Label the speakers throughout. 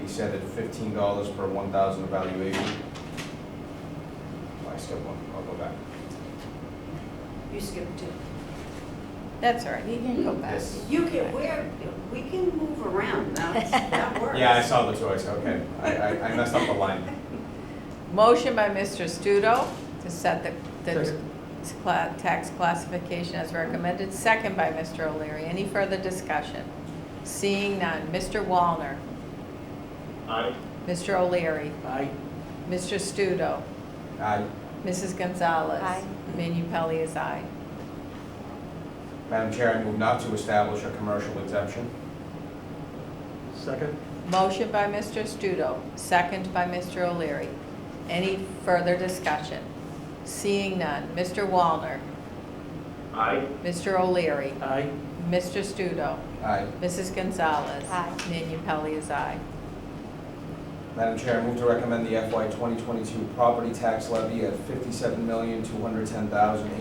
Speaker 1: he said at fifteen dollars per one thousand evaluation. I skipped one, I'll go back.
Speaker 2: You skipped two.
Speaker 3: That's all right, you can go back.
Speaker 1: Yes.
Speaker 2: You can, we're, we can move around, that's, that works.
Speaker 1: Yeah, I saw the choice, okay, I, I- I messed up the line.
Speaker 3: Motion by Mr. Studo to set the, the
Speaker 1: Second.
Speaker 3: cla- tax classification as recommended, second by Mr. O'Leary. Any further discussion? Seeing none. Mr. Wallner?
Speaker 4: Aye.
Speaker 3: Mr. O'Leary?
Speaker 4: Aye.
Speaker 3: Mr. Studo?
Speaker 1: Uh,
Speaker 3: Mrs. Gonzalez?
Speaker 5: Aye.
Speaker 3: Manu Pelley is aye.
Speaker 1: Madam Chair, I move not to establish a commercial exemption.
Speaker 4: Second?
Speaker 3: Motion by Mr. Studo, second by Mr. O'Leary. Any further discussion? Seeing none. Mr. Wallner?
Speaker 4: Aye.
Speaker 3: Mr. O'Leary?
Speaker 4: Aye.
Speaker 3: Mr. Studo?
Speaker 1: Aye.
Speaker 3: Mrs. Gonzalez?
Speaker 5: Aye.
Speaker 3: Manu Pelley is aye.
Speaker 1: Madam Chair, I move to recommend the FY 2022 property tax levy at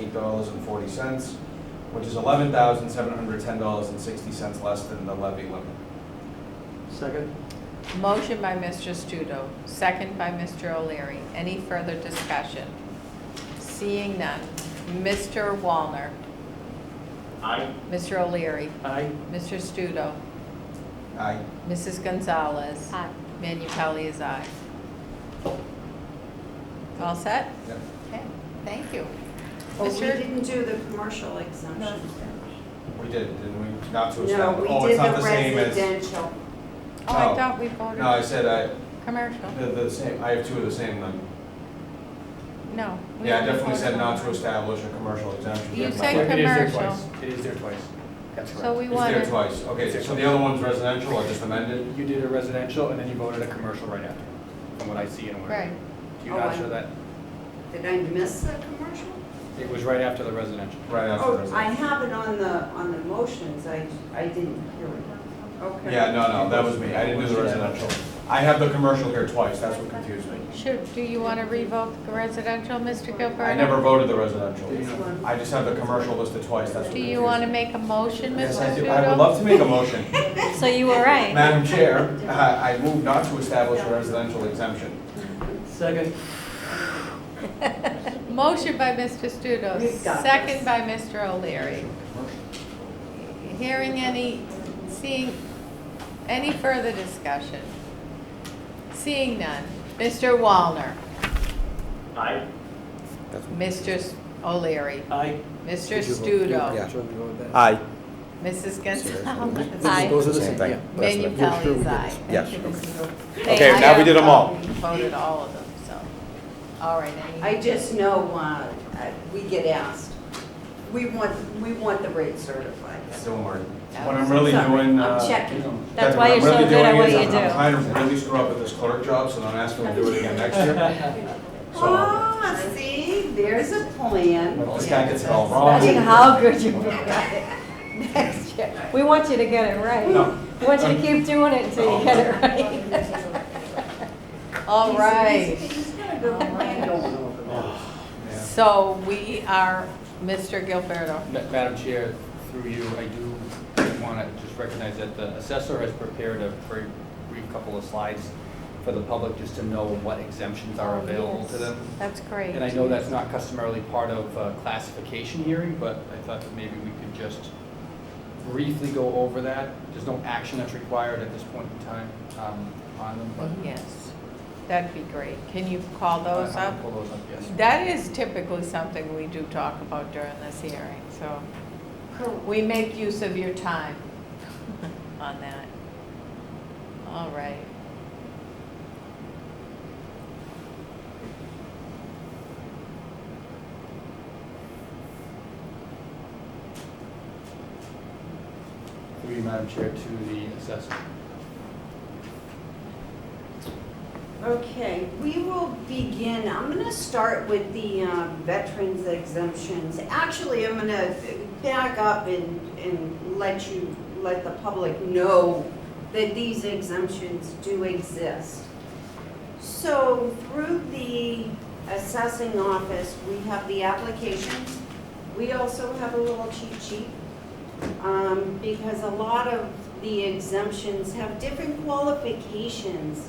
Speaker 1: $57,210,008.40, which is $11,710.60 less than the levy limit.
Speaker 4: Second?
Speaker 3: Motion by Mr. Studo, second by Mr. O'Leary. Any further discussion? Seeing none. Mr. Wallner,
Speaker 4: Aye.
Speaker 3: Mr. O'Leary,
Speaker 4: Aye.
Speaker 3: Mr. Studo,
Speaker 1: Aye.
Speaker 3: Mrs. Gonzalez.
Speaker 5: Aye.
Speaker 3: Manu Pelley is aye. All set?
Speaker 1: Yep.
Speaker 3: Okay, thank you.
Speaker 2: But we
Speaker 3: Mr.
Speaker 2: didn't do the commercial exemption.
Speaker 1: We did, didn't we? Not to
Speaker 2: No,
Speaker 1: establish.
Speaker 2: we
Speaker 1: oh,
Speaker 2: did
Speaker 1: it's not
Speaker 2: the
Speaker 1: same as-
Speaker 2: residential.
Speaker 3: Oh, I Uh,
Speaker 1: No.
Speaker 3: thought we
Speaker 1: No, I
Speaker 3: voted
Speaker 1: said I,
Speaker 3: commercial.
Speaker 1: the, the same, I have two of the same then.
Speaker 3: No. we
Speaker 1: Yeah, I
Speaker 3: only
Speaker 1: definitely
Speaker 3: voted
Speaker 1: said
Speaker 3: on
Speaker 1: not
Speaker 3: one.
Speaker 1: to establish a commercial exemption.
Speaker 3: You
Speaker 1: Yeah,
Speaker 3: said
Speaker 1: my-
Speaker 3: It is there commercial. twice.
Speaker 4: It is there twice. That's
Speaker 3: So we
Speaker 1: It's there
Speaker 3: wanted,
Speaker 1: twice. Okay, so the other one's residential or just amended?
Speaker 6: You did a residential and then you voted a commercial right after, from what I see and what I
Speaker 3: right.
Speaker 6: read. Do you
Speaker 2: Oh,
Speaker 6: not
Speaker 2: I-
Speaker 6: show that?
Speaker 2: Did I miss the commercial?
Speaker 6: It was right after the residential.
Speaker 1: Right after
Speaker 2: Oh, I
Speaker 1: residential.
Speaker 2: have it on the, on the motions, I, I didn't hear it. Okay.
Speaker 1: Yeah, no, no, that was me. I didn't do the residential. I have the commercial here twice, that's what confused me.
Speaker 3: Should, do you want to revoke the residential, Mr. Gilberto?
Speaker 1: I never voted the residential.
Speaker 2: This one.
Speaker 1: I just have the commercial listed twice, that's what
Speaker 3: Do
Speaker 1: confused me.
Speaker 3: you want to make a motion, Mr.
Speaker 1: Yes,
Speaker 3: Studo?
Speaker 1: I do. I would love to make a motion.
Speaker 5: So you were right.
Speaker 1: Madam Chair, I I move not to establish a residential exemption.
Speaker 4: Second?
Speaker 3: Motion by Mr. Studo,
Speaker 2: We've got
Speaker 3: second
Speaker 2: this.
Speaker 3: by Mr. O'Leary. Hearing any, seeing, any further discussion? Seeing none. Mr. Wallner,
Speaker 4: Aye.
Speaker 3: Mr. O'Leary,
Speaker 4: Aye.
Speaker 3: Mr. Studo,
Speaker 7: Aye.
Speaker 3: Mrs. Gonzalez.
Speaker 5: Aye.
Speaker 7: are the same thing.
Speaker 3: Manu Pelley is aye.
Speaker 7: Yes.
Speaker 3: They-
Speaker 7: Okay, now
Speaker 3: I
Speaker 7: we
Speaker 3: have-
Speaker 7: did 'em all.
Speaker 3: We voted all of them, so. All right, any?
Speaker 2: I just know, uh, I- we get asked, we want, we want the rate certified.
Speaker 1: Don't worry. What I'm really doing, uh.
Speaker 2: I'm checking.
Speaker 5: That's
Speaker 1: what
Speaker 5: why
Speaker 1: I'm
Speaker 5: you're so
Speaker 1: really
Speaker 5: good at
Speaker 1: doing
Speaker 5: what
Speaker 1: is
Speaker 5: you
Speaker 1: I'm- I'm
Speaker 5: do.
Speaker 1: trying to really screw up at this clerk job, so don't ask me to do it again next year. So,
Speaker 2: Oh, see, there's a plan.
Speaker 1: if this guy gets it all wrong.
Speaker 5: Imagine how good you got it next year. We want you to get it right.
Speaker 1: No.
Speaker 5: We want
Speaker 7: Um,
Speaker 5: you to keep doing it until you get it right.
Speaker 3: All right.
Speaker 2: He's he's got a good plan going over there.
Speaker 1: Yeah.
Speaker 3: So we are, Mr. Gilberto.
Speaker 6: Ma- Madam Chair, through you, I do want to just recognize that the assessor has prepared a very brief couple of slides for the public just to know what exemptions are available to them.
Speaker 3: Oh, That's great.
Speaker 6: And I know that's not customarily part of a classification hearing, but I thought that maybe we could just briefly go over that. There's no action that's required at this point in time um, on them, but.
Speaker 3: Yes, that'd be great. Can you call
Speaker 6: I- I'll
Speaker 3: those up?
Speaker 6: Pull those up, yes.
Speaker 3: That is typically something we do talk about during this hearing, so we make use of your time on that. All right.
Speaker 6: Through you, Madam Chair, to the assessor.
Speaker 2: Okay, we will begin, I'm gonna start with the uh, veterans exemptions. Actually, I'm gonna back up and, and let you, let the public know that these exemptions do exist. So through the assessing office, we have the applications. We also have a little cheat sheet, um, because a lot of the exemptions have different qualifications